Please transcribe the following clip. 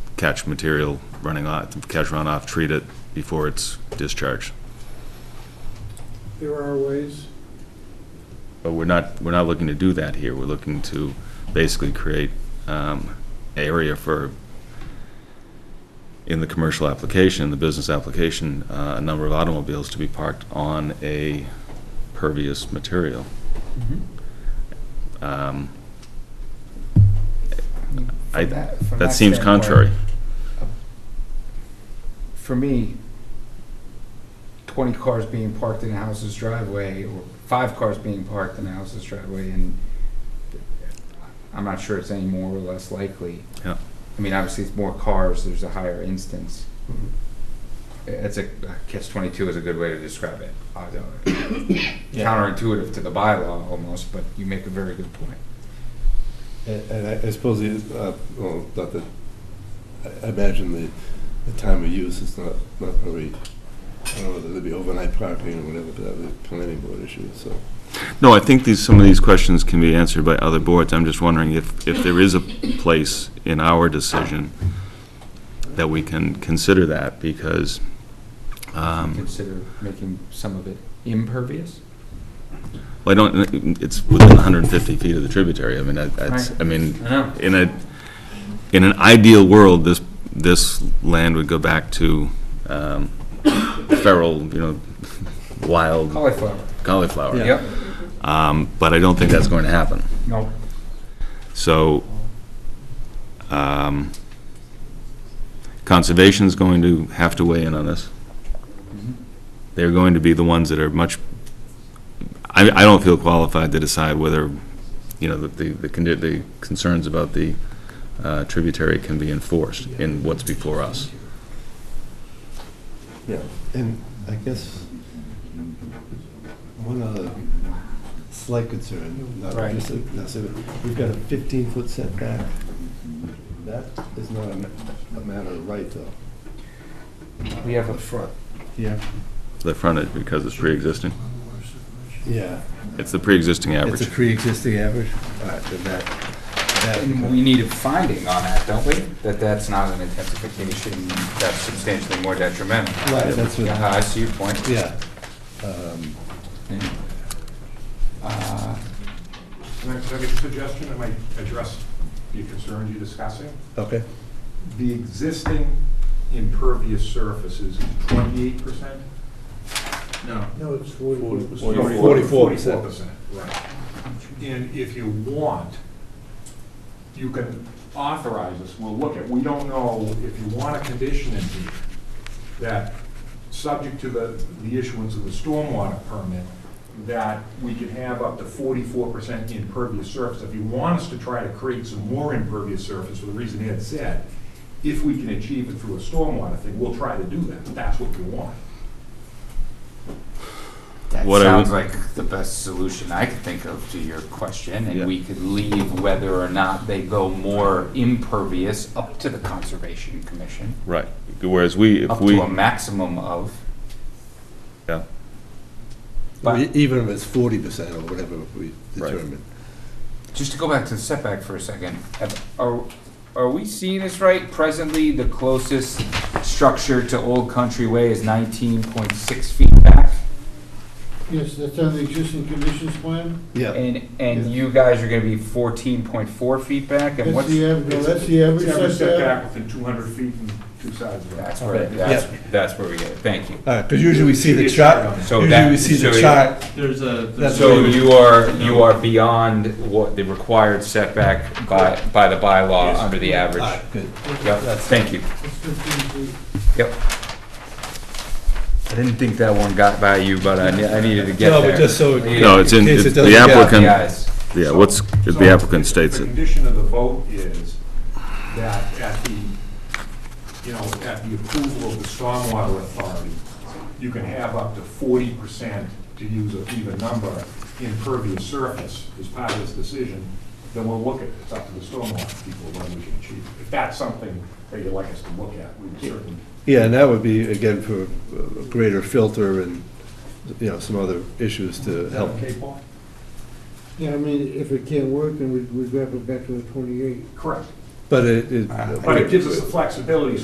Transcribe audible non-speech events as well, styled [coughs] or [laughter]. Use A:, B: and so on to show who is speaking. A: catch material running off, catch runoff, treat it before it's discharged.
B: There are ways.
A: But we're not, we're not looking to do that here. We're looking to basically create um, area for, in the commercial application, the business application, uh, a number of automobiles to be parked on a pervious material. Um, I-
C: From that- from
A: That
C: that
A: seems
C: standpoint,
A: contrary.
C: For me, twenty cars being parked in a house's driveway, or five cars being parked in a house's driveway, and I'm not sure it's any more or less likely.
A: Yeah.
C: I mean, obviously, it's more cars, there's a higher instance.
A: Mm-hmm.
C: It's a, catch twenty-two is a good way to describe it. I
A: [coughs]
C: don't- Counterintuitive to the bylaw almost, but you make a very good point.
D: And and I I suppose, the, uh, well, not that, I- I imagine the, the time of use is not, not going to be, I don't know whether there'd be overnight parking or whatever, but that would be a planning board issue, so.
A: No, I think these, some of these questions can be answered by other boards. I'm just wondering if, if there is a place in our decision that we can consider that, because, um,
C: Consider making some of it impervious?
A: well, I don't, it's within 150 feet of the tributary. I mean, that- that's, I mean,
C: I know.
A: in a, in an ideal world, this, this land would go back to um, feral, you know, wild
C: Cauliflower.
A: cauliflower.
C: Yep.
A: Um, But I don't think that's going to happen.
C: No.
A: So, um, Conservation's going to have to weigh in on this. They're going to be the ones that are much, I, I don't feel qualified to decide whether, you know, the, the, condi- the concerns about the uh, tributary can be enforced in what's before us.
D: Yeah, and I guess one other slight concern, not
C: Right.
D: necessarily, necessarily, we've got a 15-foot setback. That is not a ma- a matter of right, though.
C: We have a-
D: The front. Yeah.
A: The frontage, because it's pre-existing,
D: Yeah.
A: it's the pre-existing
D: It's a
A: average.
D: pre-existing average? All right, then that, that.
C: And we need a finding on that, don't we? That that's not an intensification, that's substantially more detrimental.
D: Right, that's what-
C: Yeah, I see your point.
D: Yeah. Um,
C: Uh,
E: Can I, can I make a suggestion that might address the concerns you're discussing?
D: Okay.
E: The existing impervious surface is twenty-eight percent? No.
B: No, it's forty.
D: Forty- Forty-four percent.
E: Right. And if you want, you can authorize us, we'll look at, we don't know if you want a condition in here that, subject to the, the issuance of the stormwater permit, that we can have up to forty-four percent impervious surface. If you want us to try to create some more impervious surface, for the reason Ed said, if we can achieve it through a stormwater thing, we'll try to do that, that's what we want.
C: That
A: What I
C: sounds
A: would-
C: like the best solution I could think of to your question,
A: Yeah.
C: and we could leave whether or not they go more impervious up to the Conservation Commission,
A: Right, whereas we, if
C: up
A: we,
C: to a maximum of.
A: yeah,
C: But-
D: Even if it's forty percent or whatever we
A: Right.
D: determine.
C: Just to go back to the setback for a second, have- are, are we seeing this right? Presently, the closest structure to Old Country Way is nineteen point six feet back?
B: Yes, that's on the existing conditions plan.
D: Yeah,
C: And, and you guys are gonna be fourteen point four feet back, and
B: That's
C: what's?
B: the average, no, that's the
E: It's
B: average setback.
E: setback within two hundred feet and two sides of that.
C: That's where, that's, that's where we get it, thank you.
D: because usually we see the
E: It's-
D: chart,
C: So
D: usually
C: that-
D: we see
C: so
D: the
C: you-
D: chart.
F: There's a,
D: That's
F: there's
C: So
D: what we-
C: you are, you are beyond what the required setback by, by the bylaw under the average.
D: Ah, good.
C: Yep, thank you.
B: It's 15 feet.
C: Yep. I didn't think that one got by you, but I, ne- I needed to get
D: No,
C: there.
D: but just so.
A: No, it's in-
D: case
A: it's
D: it
A: the
D: doesn't get-
A: applicant-
C: The ayes.
A: yeah, what's,
E: So-
A: the applicant
E: so
A: states
E: The
A: it.
E: condition of the vote is that at the, you know, at the approval of the stormwater authority, you can have up to forty percent, to use a even number, impervious surface as part of this decision, then we'll look at, it's up to the stormwater people when we can achieve. it. If that's something that you'd like us to look at, we would certainly.
D: Yeah, and that would be, again, for a greater filter and, you know, some other issues to
E: Is that
D: help.
E: okay, Paul?
B: Yeah, I mean, if it can't work, then we, we drop it back to the twenty-eight.
E: Correct.
D: But it, it.
C: Ah.
E: But it gives us the flexibility,